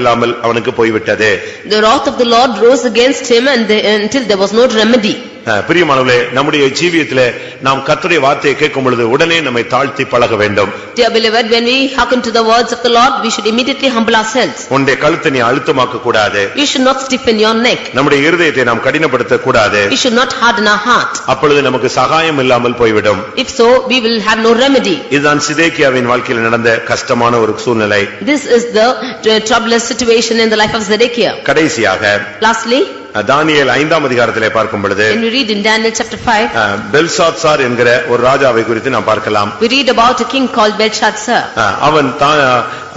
இல்லாமல் அவனுக்கு போய்விட்டது The wrath of the Lord rose against him and the- until there was no remedy. அஹ், பிரியமானவர்களே நம்முடைய ஜீவியத்திலே நாம் கர்த்தருடைய வார்த்தையை கேட்கும் பொழுது உடனே நம்மை தாழ்த்தி பழக வேண்டும் Dear beloved, when we hearken to the words of the Lord, we should immediately humble ourselves. உன்னுடைய கழுத்தை நீ அழுத்தமாக்க கூடாது You should not stiffen your neck. நம்முடைய இருதயத்தை நாம் கடினப்படுத்த கூடாது We should not harden our heart. அப்பொழுது நமக்கு சகாயம் இல்லாமல் போய்விடும் If so, we will have no remedy. இதுதான் சிதேக்கியாவின் வாழ்க்கையில் நடந்த கஷ்டமான ஒரு சூழ்நிலை This is the troublous situation in the life of Zedekiah. கடைசியாக Lastly, அஹ், தானியேல் ஐந்தாம் அதிகாரத்திலே பார்க்கும் பொழுது when we read in Daniel chapter 5, அஹ், பெல்சாத்சார் என்கிற ஒரு ராஜாவை குறித்து நாம் பார்க்கலாம் we read about a king called Belshazzar. அஹ், அவன் தான்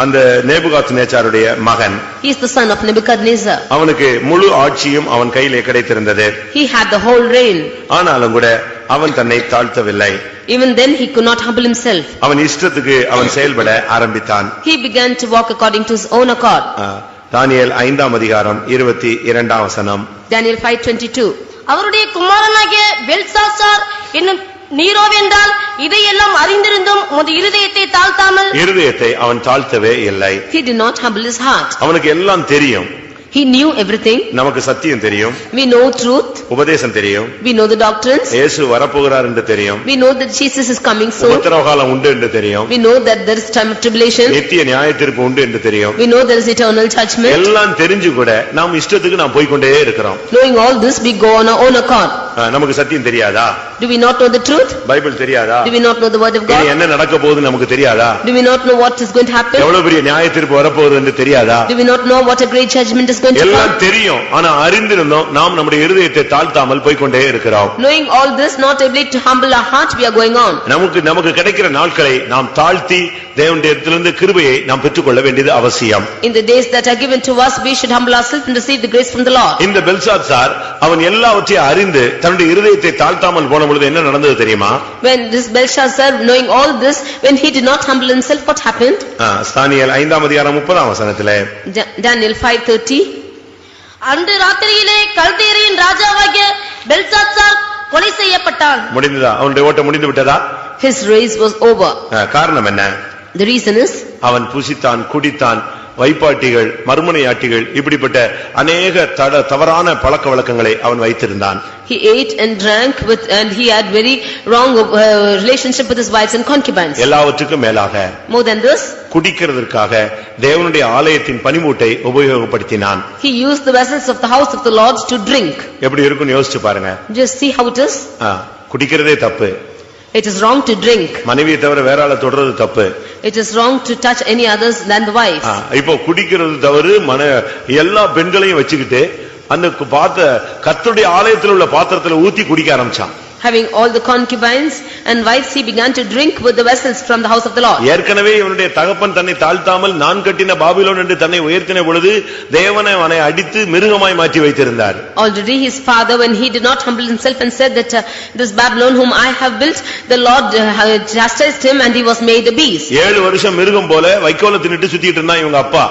அந்த நேபுகாத் நேச்சாருடைய மகன் He is the son of Nebuchadnezzar. அவனுக்கு முழு ஆட்சியும் அவன் கையிலே கிடைத்திருந்தது He had the whole reign. ஆனாலும் கூட அவன் தன்னை தாழ்த்தவில்லை Even then, he could not humble himself. அவன் இஷ்டத்துக்கு அவன் செயல்பட ஆரம்பித்தான் He began to walk according to his own accord. ஆ, தானியேல் ஐந்தாம் அதிகாரம் இருபத்தி இரண்டாம் வசனம் Daniel 5:22. அவருடைய குமாரனாகிய பெல்சாசார் என்னும் நீரோவென்றால் இதையெல்லாம் அறிந்திருந்தும் உமது இருதயத்தை தாழ்த்தாமல் இருதயத்தை அவன் தாழ்த்தவே இல்லை He did not humble his heart. அவனுக்கு எல்லாம் தெரியும் He knew everything. நமக்கு சத்தியம் தெரியும் We know truth. உபதேசம் தெரியும் We know the doctrines. இயேசு வரப்போகிறார் என்று தெரியும் We know that Jesus is coming soon. உத்தரவுகாலம் உண்டு என்று தெரியும் We know that there is time of tribulation. நித்திய நியாயத்திற்கு உண்டு என்று தெரியும் We know there is eternal judgment. எல்லாம் தெரிஞ்சு கூட நாம் இஷ்டத்துக்கு நாம் போய்க்கொண்டே இருக்கிறோம் Knowing all this, we go on our own accord. ஆ, நமக்கு சத்தியம் தெரியாதா Do we not know the truth? Bible தெரியாதா Do we not know the word of இனி God? என்ன நடக்க போகுதுன்னு நமக்கு தெரியாதா Do we not know what is going to happen? எவ்வளவு பெரிய நியாயத்திற்கு வரப்போகுது என்று தெரியாதா Do we not know what a great judgment is going to எல்லாம் come? தெரியும் ஆனா அறிந்திருந்தோம் நாம் நம்முடைய இருதயத்தை தாழ்த்தாமல் போய்க்கொண்டே இருக்கிறோம் Knowing all this, not able to humble our heart, we are going on. நமக்கு நமக்கு கிடைக்கிற நாட்களை நாம் தாழ்த்தி தேவனுடைய இடத்திலிருந்து கிருபையை நாம் பெற்றுக்கொள்ள வேண்டியது அவசியம் In the days that are given to us, we should humble ourselves and receive the grace from the Lord. இந்த பெல்சாத் சார் அவன் எல்லாவற்றையும் அறிந்து தன்னுடைய இருதயத்தை தாழ்த்தாமல் போன பொழுது என்ன நடந்தது தெரியுமா When this Belshazzar, knowing all this, when he did not humble himself, what happened? ஆ, ஸ்தானியல் ஐந்தாம் அதிகாரம் முப்பதாம் வசனத்திலே Da- Daniel 5:30, அன்று ராத்திரியிலே கல்தேரியின் ராஜாவாகிய பெல்சாசார் கொலை செய்யப்பட்டான் முடிந்ததா அவனுடைய ஓட்டம் முடிந்து விட்டதா his race was over. ஆ, காரணம் என்ன The reason is, அவன் புசித்தான் குடித்தான் வைப்பாட்டிகள் மறுமனையாட்டிகள் இப்படிப்பட்ட அநேக தட தவறான பழக்க வழக்கங்களை அவன் வைத்திருந்தான் he ate and drank with, and he had very wrong uh, relationship with his wives and concubines. எல்லாவற்றுக்கும் மேலாக More than this, குடிக்கிறதற்காக தேவனுடைய ஆலயத்தின் பனிமூட்டை உபயோகப்படுத்தினான் he used the vessels of the house of the Lord to drink. எப்படி இருக்கும்னு யோசிச்சு பாருங்க Just see how it is. ஆ, குடிக்கிறதே தப்பு It is wrong to drink. மனைவியை தவிர வேற ஆளை தொடர்றது தப்பு It is wrong to touch any others than the wives. ஆ, இப்போ குடிக்கிறது தவறு மன எல்லா பெண்களையும் வச்சுக்கிட்டு அந்த கு- பாத்த கர்த்தருடைய ஆலயத்தில் உள்ள பாத்திரத்துல ஊத்தி குடிக்க ஆரம்பிச்சான் Having all the concubines and wives, he began to drink with the vessels from the house of the Lord. ஏற்கனவே இவனுடைய தகப்பன் தன்னை தாழ்த்தாமல் நான் கட்டின பாபிலோன் என்று தன்னை உயர்த்தின பொழுது தேவனை அவனை அடித்து மிருகமாய் மாற்றி வைத்திருந்தார் Already his father, when he did not humble himself and said that uh, this Babylon whom I have built, the Lord uh, chastised him and he was made a beast. ஏழு வருஷம் மிருகம் போல வைக்கோல தின்னுட்டு சுத்திட்டு இருந்தான் இவங்க அப்பா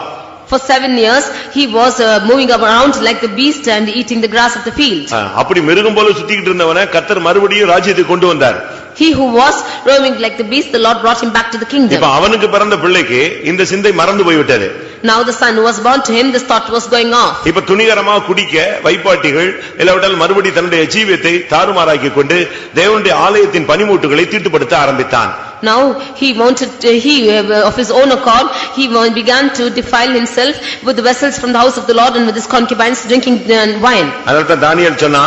For seven years, he was uh, moving around like the beast and eating the grass of the field. ஆ, அப்படி மிருகம் போல சுத்திக்கிட்டு இருந்தவனை கர்த்தர் மறுபடியும் ராஜ்யத்துக்கு கொண்டு வந்தார் He who was roaming like the beast, the Lord brought him back to the இப்ப kingdom. அவனுக்கு பிறந்த பிள்ளைக்கு இந்த சிந்தை மறந்து போய்விட்டது Now the son who was born to him, this thought was going off. இப்ப துணிகரமா குடிக்க வைப்பாட்டிகள் இல்லாவிட்டால் மறுபடி தன்னுடைய ஜீவியத்தை தாறுமாறாக்கி கொண்டு தேவனுடைய ஆலயத்தின் பனிமூட்டுகளை தீட்டுப்படுத்த ஆரம்பித்தான் Now he wanted, uh, he uh, of his own accord, he wa- began to defile himself with the vessels from the house of the Lord and with his concubines drinking uh, wine. அதனால Daniel சொன்னா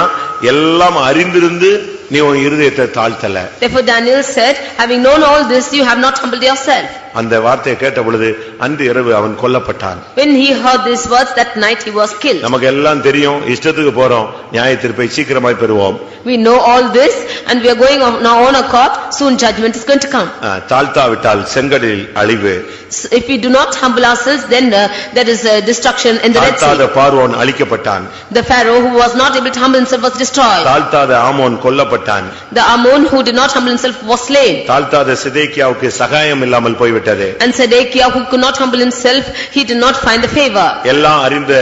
எல்லாம் அறிந்திருந்து நீ உன் இருதயத்தை தாழ்த்தல Therefore Daniel said, having known all this, you have not humbled yourself. அந்த வார்த்தையை கேட்ட பொழுது அன்று இரவு அவன் கொல்லப்பட்டான் When he heard these words, that night he was killed. நமக்கு எல்லாம் தெரியும் இஷ்டத்துக்கு போறோம் நியாய தீர்ப்பை சீக்கிரமாய் பெறுவோம் We know all this and we are going on our own accord, soon judgment is going to come. ஆ, தாழ்த்தாவிட்டால் செங்கடலில் அழிவு So If we do not humble ourselves, then uh, there is uh, destruction in the Red தாழ்த்தாத Sea. பார்வோன் அழிக்கப்பட்டான் The Pharaoh who was not able to humble himself was destroyed. தாழ்த்தாத ஆமோன் கொல்லப்பட்டான் The Ammon who did not humble himself was slain. தாழ்த்தாத சிதேக்கியாவுக்கு சகாயம் இல்லாமல் போய்விட்டது And Sedekiah who could not humble himself, he did not find the favor. எல்லாம் அறிந்த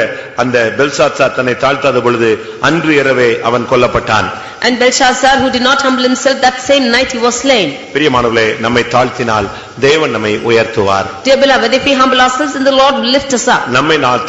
அந்த பெல்சாத்சார் தன்னை தாழ்த்தாத பொழுது அன்று இரவே அவன் கொல்லப்பட்டான் And Belshazzar, who did not humble himself, that same night he was slain. பிரியமானவர்களே நம்மை தாழ்த்தினால் தேவன் நம்மை உயர்த்துவார் Dear beloved, if we humble ourselves, then the Lord will lift us up. நம்மை நான்